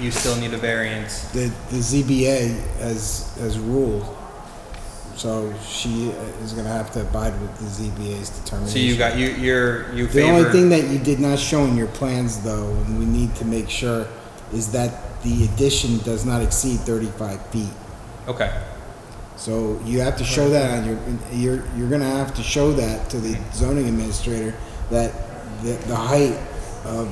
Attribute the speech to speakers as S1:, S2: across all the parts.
S1: you still need a variance.
S2: The, the ZBA has, has ruled, so she is gonna have to abide with the ZBA's determination.
S1: So you got, you, you're, you
S2: The only thing
S1: favor,
S2: that you did not show in your plans, though, and we need to make sure, is that the addition does not exceed 35 feet.
S1: okay,
S2: So you have to show that on your, you're, you're gonna have to show that to the zoning administrator, that the, the height of,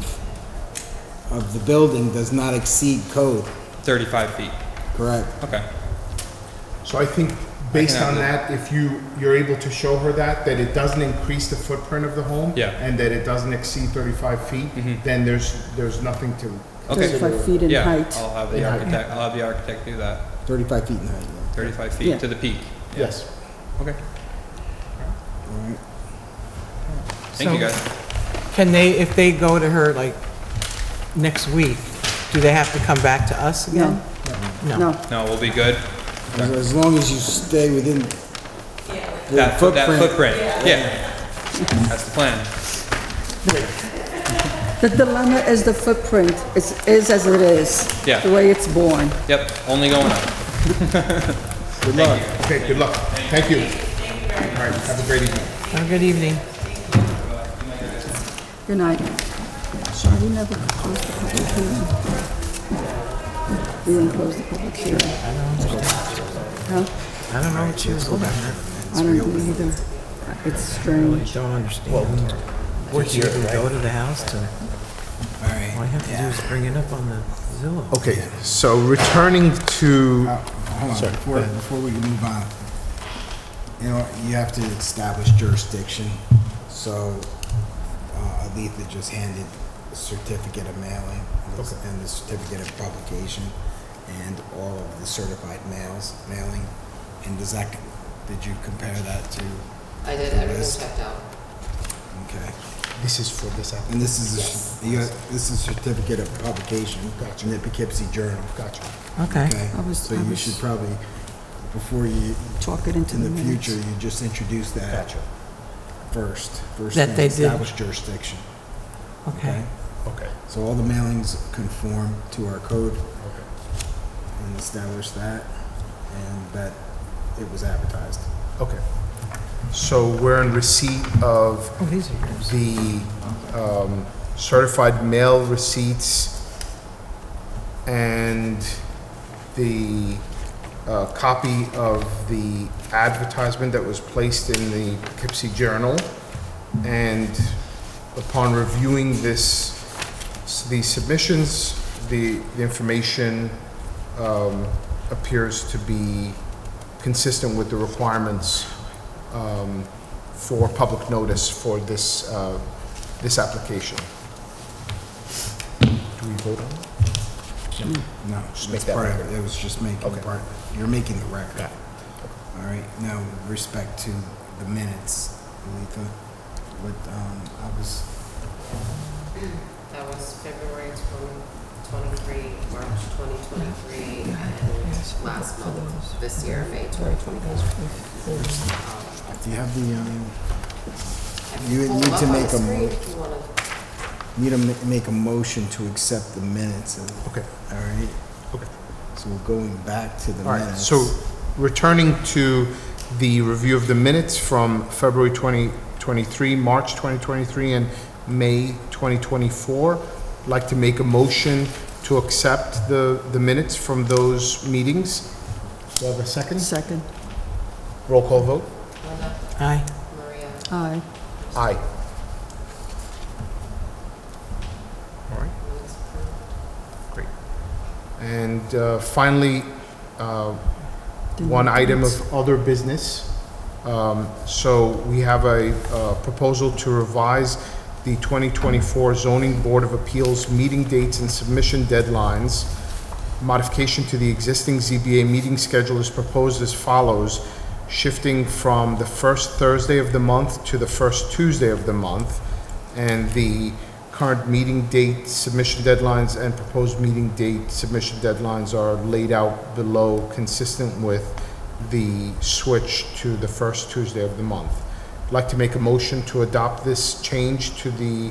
S2: of the building does not exceed code,
S1: thirty-five feet,
S2: correct?
S1: okay.
S3: So I think based
S1: I can
S3: on
S1: have
S3: that, if you, you're able to show her that, that it doesn't increase the footprint of the home.
S1: Yeah. Mm-hmm.
S3: And that it doesn't exceed thirty-five feet, then there's, there's nothing to.
S1: Okay.
S3: consider.
S4: 35 feet in
S1: Yeah, Oh.
S4: height.
S1: I'll have the
S3: In height.
S1: architect, I'll have the architect do that,
S2: 35 feet in height, yeah.
S1: thirty-five
S4: Yeah.
S1: feet to the peak,
S3: Yes.
S1: okay.
S2: all right?
S1: Thank you
S5: So-
S1: guys.
S5: Can they, if they go to her like next week, do they have to come back to us again?
S4: No, no.
S1: No, we'll be good.
S2: As, as long as you stay within the
S1: That, that
S2: footprint.
S1: footprint, yeah. That's the plan.
S4: The dilemma is the footprint. It is as it is.
S1: Yeah.
S4: The way it's born.
S1: Yep, only going up.
S3: Okay, good luck. Thank you. All right, have a great evening.
S5: Have a Oh, good evening.
S4: Good night. So we never closed the public hearing. We didn't close the public hearing. Huh?
S5: I don't know what she was looking at.
S4: I don't know either. It's strange.
S5: Don't understand. Did she even go to the house to, all I have to do is bring it up on the Zillow.
S3: Okay, so returning to,
S2: Hold on, before, before we move on, you know, you have to establish jurisdiction, so, uh, Aletha just handed a certificate of mailing and the certificate of publication and all of the certified mails, mailing, and does that, did you compare that to?
S6: I did,
S2: the
S6: everything
S2: list?
S6: checked out.
S2: Okay,
S3: this is for this app.
S2: and this is, a- you got, this is certificate of publication in the Poughkeepsie Journal.
S3: Gotcha.
S5: Okay.
S2: Okay,
S4: I was-
S2: so
S4: I
S2: you
S4: was-
S2: should probably, before you,
S4: Talk it into
S2: in
S4: the
S2: the
S4: minutes.
S2: future, you just introduce that first. first
S5: That
S2: thing,
S5: they did.
S2: Establish jurisdiction,
S5: Okay.
S2: okay?
S3: Okay.
S2: So all the mailings conform to our code and establish that, and that it was advertised.
S3: Okay. So we're in receipt of
S5: Oh, these are yours.
S3: the um, certified mail receipts and the uh, copy of the advertisement that was placed in the Poughkeepsie Journal. And upon reviewing this, the submissions, the the information um, appears to be consistent with the requirements um, for public notice for this, uh, this application. Do we vote on it?
S2: No,
S3: Just
S2: that's
S3: make that
S2: part of
S3: record.
S2: it, it was just making
S3: Okay.
S2: part, you're making the record.
S3: Got it.
S2: All right, now, with respect to the minutes, Letha, what, um, I was,
S6: That was February 2023, March 2023, and last month, this year, May 2023.
S2: do you have the, um,
S6: I can
S2: You would
S6: pull them
S2: need to
S6: up on
S2: make
S6: the
S2: a
S6: screen
S2: mo-
S6: if you wanna-
S2: need to ma- make a motion to accept the minutes of
S3: Okay,
S2: All right,
S3: okay.
S2: so we're going back to the
S3: All right,
S2: minutes.
S3: so returning to the review of the minutes from February 2023, March 2023, and May 2024, I'd like to make a motion to accept the, the minutes from those meetings. Do I have a second?
S4: Second.
S3: Roll call vote?
S6: Linda,
S5: Aye.
S6: Maria,
S4: Aye.
S3: Aye. All right.
S6: minutes approved.
S3: Great. And uh, finally, uh,
S4: Didn't
S3: one
S4: make the
S3: item
S4: minutes.
S3: of other business. Um, So we have a uh, proposal to revise the 2024 zoning board of appeals meeting dates and submission deadlines. Modification to the existing ZBA meeting schedule is proposed as follows, shifting from the first Thursday of the month to the first Tuesday of the month, and the current meeting date submission deadlines and proposed meeting date submission deadlines are laid out below, consistent with the switch to the first Tuesday of the month. I'd like to make a motion to adopt this change to the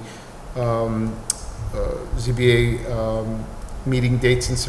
S3: um, uh, ZBA um, meeting dates and